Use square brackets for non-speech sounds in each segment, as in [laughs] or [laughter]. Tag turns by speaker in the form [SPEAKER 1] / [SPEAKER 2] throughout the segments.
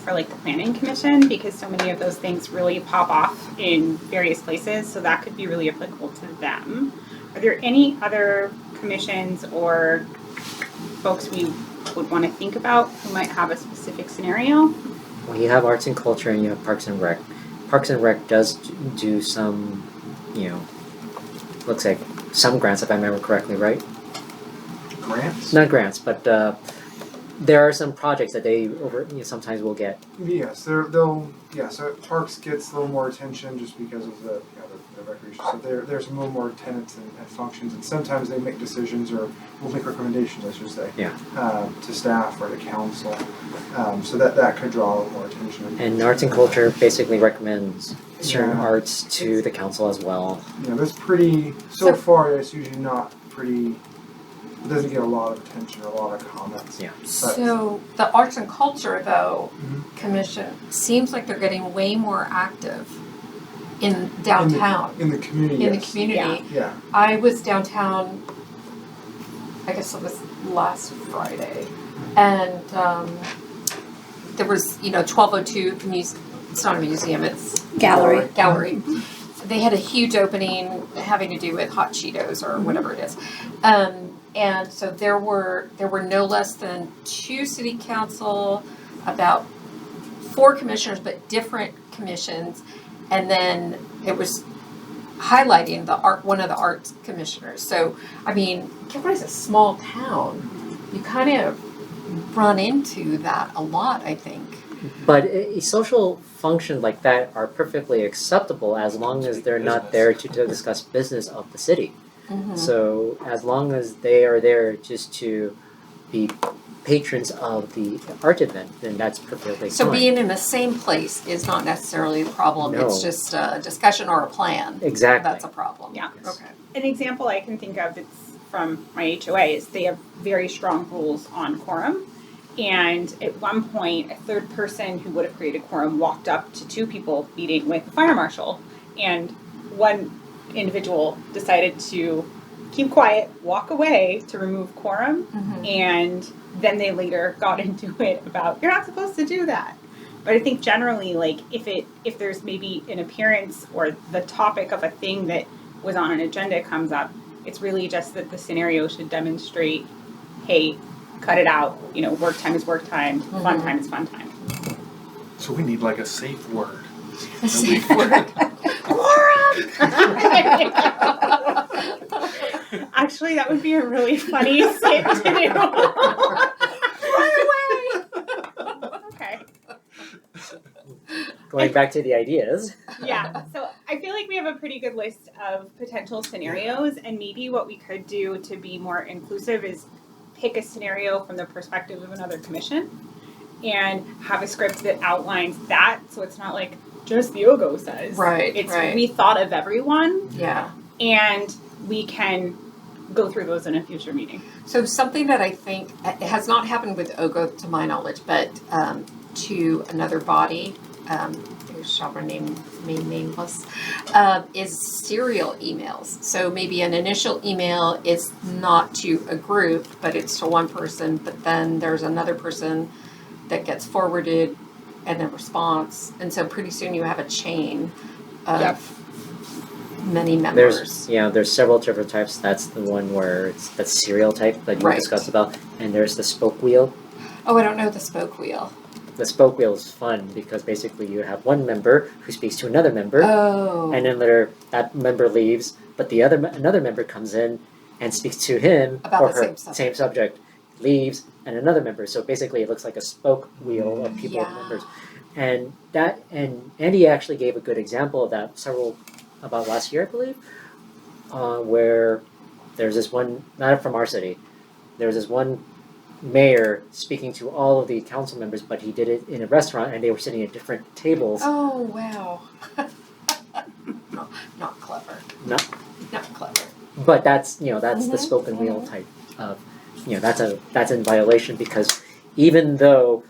[SPEAKER 1] for like the planning commission because so many of those things really pop off in various places. So that could be really applicable to them. Are there any other commissions or folks we would want to think about who might have a specific scenario?
[SPEAKER 2] Well, you have arts and culture, and you have Parks and Rec. Parks and Rec does d- do some, you know, looks like some grants, if I remember correctly, right?
[SPEAKER 3] Grants?
[SPEAKER 2] Not grants, but uh, there are some projects that they over you know, sometimes will get.
[SPEAKER 3] Yes, they're, they'll, yeah, so parks gets a little more attention just because of the, you know, the, the recreation. So there, there's a little more tenants and, and functions, and sometimes they make decisions or will make recommendations, I should say.
[SPEAKER 2] Yeah.
[SPEAKER 3] Um, to staff or the council, um, so that, that could draw a little more attention.
[SPEAKER 2] And arts and culture basically recommends certain
[SPEAKER 3] Yeah.
[SPEAKER 2] arts to the council as well.
[SPEAKER 3] Yeah, that's pretty, so
[SPEAKER 1] So-
[SPEAKER 3] far, it's usually not pretty, it doesn't get a lot of attention or a lot of comments.
[SPEAKER 2] Yeah.
[SPEAKER 4] So Mm-hmm. the arts and culture though,
[SPEAKER 3] Mhm.
[SPEAKER 4] commission, seems like they're getting way more active in downtown,
[SPEAKER 3] In the community,
[SPEAKER 4] in the
[SPEAKER 3] yes.
[SPEAKER 4] community.
[SPEAKER 1] Yeah.
[SPEAKER 3] Yeah,
[SPEAKER 4] I was downtown, I guess it was last Friday, and um there was, you know, twelve oh two, the muse, it's not a museum, it's
[SPEAKER 3] Gallery.
[SPEAKER 4] gallery. They had a huge opening having to do with hot Cheetos or whatever it is. Um, and so there were, there were no less than two city council, about four commissioners, but different commissions. And then it was highlighting the art, one of the arts commissioners. So, I mean, Kilbride is a small town. You kind of run into that a lot, I think.
[SPEAKER 2] But a, a social function like that are perfectly acceptable as long as they're not there to, to discuss business of the city. Mm-hmm. So as long as they are there just to be patrons of the art event, then that's perfectly
[SPEAKER 4] So
[SPEAKER 2] fine.
[SPEAKER 4] being in the same place is not necessarily a problem, it's
[SPEAKER 2] No.
[SPEAKER 4] just a discussion or a plan.
[SPEAKER 2] exactly.
[SPEAKER 4] That's a problem.
[SPEAKER 1] Yeah.
[SPEAKER 2] Yes.
[SPEAKER 4] Okay.
[SPEAKER 1] An example I can think of that's from my HOA is they have very strong rules on quorum. And at one point, a third person who would have created quorum walked up to two people meeting with the fire marshal. And one individual decided to keep quiet, walk away to remove quorum. And then they later got [laughs] into it about, you're not supposed to do that. But I think generally, like if it if there's maybe an appearance or the topic of a thing that was on an agenda comes up, it's really just that the scenario should demonstrate, hey, cut it out. You know, work time is work time, fun
[SPEAKER 4] Mhm.
[SPEAKER 1] time is fun [laughs] time.
[SPEAKER 5] So we need like a safe word.
[SPEAKER 1] Actually, that would be a really funny [laughs] skit to do. Run away. okay.
[SPEAKER 2] Going back to the ideas.
[SPEAKER 4] [laughs]
[SPEAKER 1] yeah. So I feel like we have a pretty good list of potential scenarios, and maybe what we could do to be more inclusive is pick a scenario from the perspective of another commission and have a script that outlines that so it's not like just the OGO says.
[SPEAKER 4] Right,
[SPEAKER 1] It's
[SPEAKER 4] right.
[SPEAKER 1] we thought of everyone
[SPEAKER 4] [laughs] Yeah.
[SPEAKER 1] and we can go through those in a future meeting.
[SPEAKER 4] So something that I think it has not happened with OGO to my knowledge, but um, to another body, um, who shall remain remain nameless, uh, is serial emails. So maybe an initial email is not to a group, but it's to one person. But then there's another person that gets forwarded, and a response, and so pretty soon you have a chain of
[SPEAKER 1] Yep.
[SPEAKER 4] many members.
[SPEAKER 2] There's you know, there's several different types. That's the one where it's that serial type that you
[SPEAKER 4] Right.
[SPEAKER 2] discussed about. And there's the spoke wheel.
[SPEAKER 4] oh, I don't know the spoke wheel.
[SPEAKER 2] The spoke wheel is fun because basically you have one member who speaks to another member.
[SPEAKER 4] Oh.
[SPEAKER 2] and then later that member leaves, but the other another member comes in and speaks to him
[SPEAKER 4] About
[SPEAKER 2] or
[SPEAKER 4] the
[SPEAKER 2] her
[SPEAKER 4] same subject.
[SPEAKER 2] subject, leaves, and another member. So basically, it looks like a spoke wheel of people and
[SPEAKER 4] Yeah.
[SPEAKER 2] members, and that and Andy actually gave a good example of that several about last year, I believe, uh, where there's this one not from our city, there's this one mayor speaking to all of the council members, but he did it in a restaurant, and they were sitting at different tables.
[SPEAKER 4] Oh wow. [laughs] not, not clever.
[SPEAKER 2] No.
[SPEAKER 4] Not clever.
[SPEAKER 2] but that's you know that's the
[SPEAKER 4] Mhm,
[SPEAKER 2] spoken wheel type of you know that's a that's in violation because even though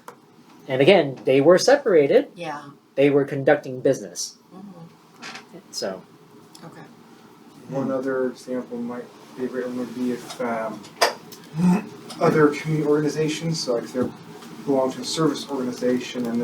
[SPEAKER 2] and again they were separated
[SPEAKER 4] Yeah.
[SPEAKER 2] they were conducting business
[SPEAKER 4] Mhm.
[SPEAKER 2] so
[SPEAKER 4] Okay.
[SPEAKER 3] One other example might be written would be if um, other community organizations, so if they belong to a service organization and